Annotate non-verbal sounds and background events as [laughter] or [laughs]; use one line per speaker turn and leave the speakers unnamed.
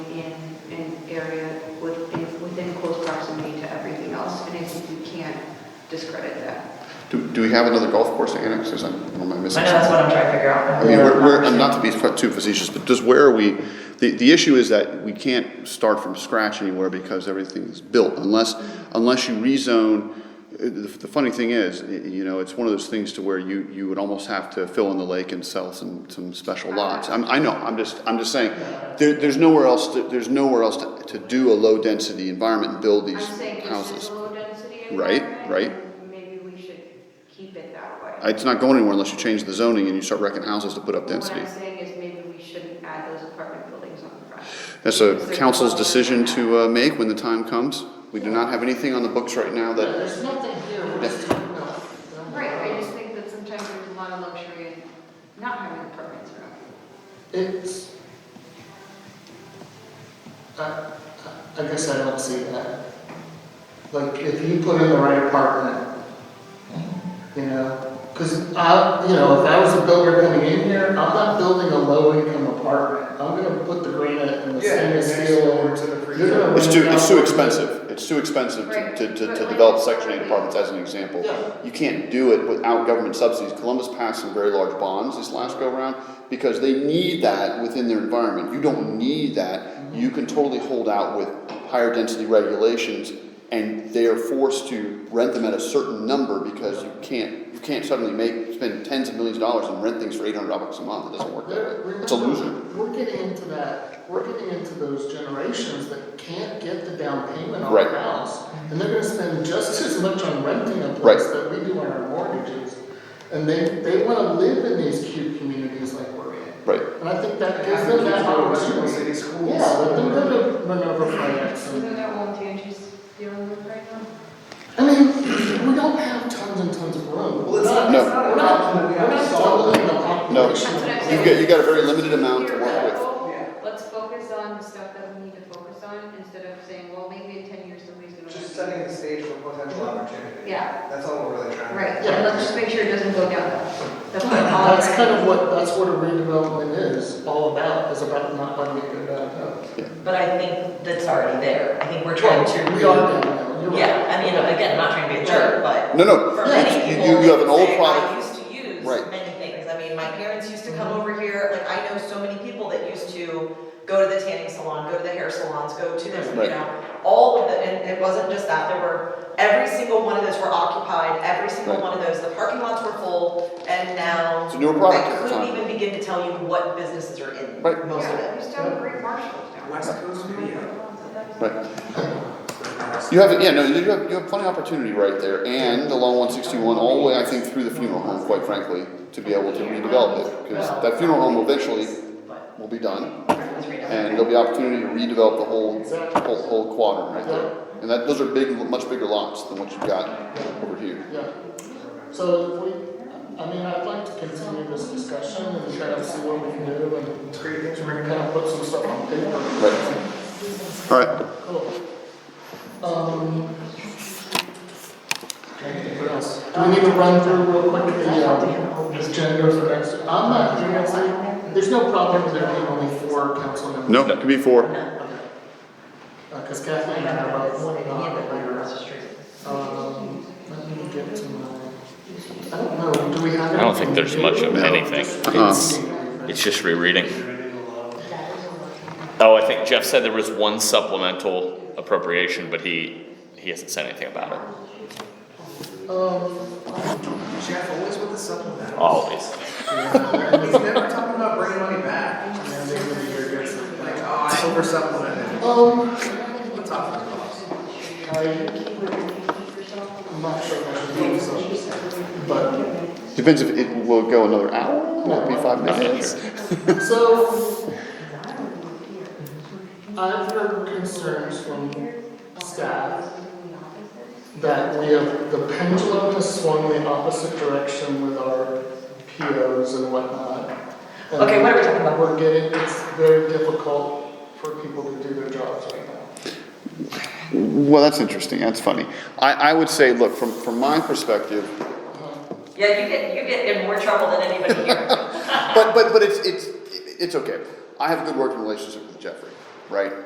discredit that.
Do, do we have another golf course to annex, or is that, or am I missing
I know that's
something?
what I'm trying to figure out.
I mean, we're, we're, and not to be fa- too facetious, but just where are we, the, the issue is that we can't start from scratch anywhere because everything's built, unless, unless you rezone, uh, the, the funny thing is, y- you know, it's one of those things to where you, you would almost have to fill in the lake and sell some, some special lots. I'm, I know, I'm just, I'm just saying, there, there's nowhere else, to- there's nowhere else to, to do a low-density environment and build
I'm
these
saying this is
houses.
a low density
Right,
environment.
right. Uh,
and Maybe we should keep it that way.
It's not going anywhere unless you change the zoning and you start wrecking houses to put up
What
density.
I'm saying is maybe we shouldn't add those apartment buildings on the front.
That's a council's decision to uh, make when the time comes. We do not have anything on the books right now
No,
that,
There's nothing here, we're just talking about.
Right, I just think that sometimes there's a lot of luxury in not having apartments around.
It's. I, I I guess I don't see that. Like, if you put in the right apartment, you know, cause I, you know, if I was a builder coming in here, I'm not building a low income apartment. I'm gonna put the granite and the
Yeah, and
stainless
next
steel.
door to the
You're gonna
it's
rent
too,
it
it's
out
too
for-
expensive. It's too expensive to, to, to to develop section eight apartments as an example.
Yeah.
You can't do it without government subsidies. Columbus passed some very large bonds this last go round because they need that within their environment. You don't need that. You can totally hold out with higher density regulations and they are forced to rent them at a certain number because you can't, you can't suddenly make, spend tens of millions of dollars and rent things for eight hundred bucks a month. It doesn't work that way.
We're-
It's a loser.
We're getting into that, we're getting into those generations that can't get the down payment on
Right.
a house. And they're gonna spend just as much on renting a
Right.
place that we do on our mortgages. And they, they wanna live in these cute communities like we're in.
Right.
And I think that gives
Have
them
the
that
kids go to Central
opportunity.
City Schools.
Yeah, let them go to Minerva Finance and
Isn't that one Tangi's dealing with right now?
I mean, we don't have tons and tons of room.
Well, it's not-
No.
it's not
We're
a
not,
problem
we're
that we have
not
to solve.
doubling the
No.
population.
That's what I'm
You've got, you've got a very limited amount to work with.
Let's focus on the stuff that we need to focus on instead of saying, well, maybe in ten years somebody's gonna.
Just setting the stage for potential opportunity.
Yeah.
That's all we're really trying to.
Right,
Yeah.
and let's just make sure it doesn't go down. That's what I'm all
That's
trying to-
kind of what, that's what a redevelopment is all about, is about not letting it go downhill.
But I think that's already there. I think we're trying to.
We are downhill, you're right.
Yeah, I mean, again, I'm not trying to be a jerk, but
No, no,
for
Yeah,
many
you-
people,
you- you have an old
they say,
product."
I used to use
Right. Mm-hmm.
many things. I mean, my parents used to come over here, like, I know so many people that used to go to the tanning salon, go to the hair salons, go to this,
Right.
you know, all of the, and it wasn't just that, there were, every single one of those were occupied, every single
Right.
one of those, the parking lots were full, and now
It's a newer product
I
at the
couldn't
time.
even begin to tell you what businesses are in,
Right.
most of
Yeah,
it.
we still have great marshals now.
West Coast Media.
Right. You have, yeah, no, you have, you have plenty of opportunity right there, and along one sixty-one, all the way, I think, through the funeral home, quite frankly, to be able to redevelop it, because that funeral home eventually
But,
will be done,
let's read it.
and there'll be opportunity to redevelop the whole, whole, whole quadrant right there. And that, those are big, much bigger lots than what you've got over here.
Yeah. So if we, I mean, I'd like to continue this discussion and try to see what we can do and
Great, thanks for bringing
kind
that up.
of put some stuff on paper.
Right. All right,
Cool. Oh. Um. What else? Do we need to run through real quick the, um, agenda for next, I'm not, seriously, there's no problem with there being only four council members.
no, it could be four.
Because Kathleen and I both want to Um, let me get to my, I don't know, do we have?
I don't think there's much of
No.
anything.
Uh-uh.
It's just rereading. Oh, I think Jeff said there was one supplemental appropriation, but he, he hasn't said anything about it.
Um,
Jeff, always with the supplement.
Always.
He's never talking about bringing money back. And then they give you your goods, Like, oh, I over supplemented.
um, [laughs]
What's off the cost?
I, I'm not sure if I should do this, but,
Depends if it will go another hour, will it be five minutes?
so. I've heard concerns from staff that we have, the pendulum has swung the opposite direction with our POs and whatnot. And
Okay, what are we talking about?
We're getting, it's very difficult for people to do their jobs right now.
Well, that's interesting, that's funny. I, I would say, look, from, from my perspective,
Yeah, you get, you get in more trouble than anybody here.
But but but it's it's it's okay. I have a good working relationship with Jeffrey, right?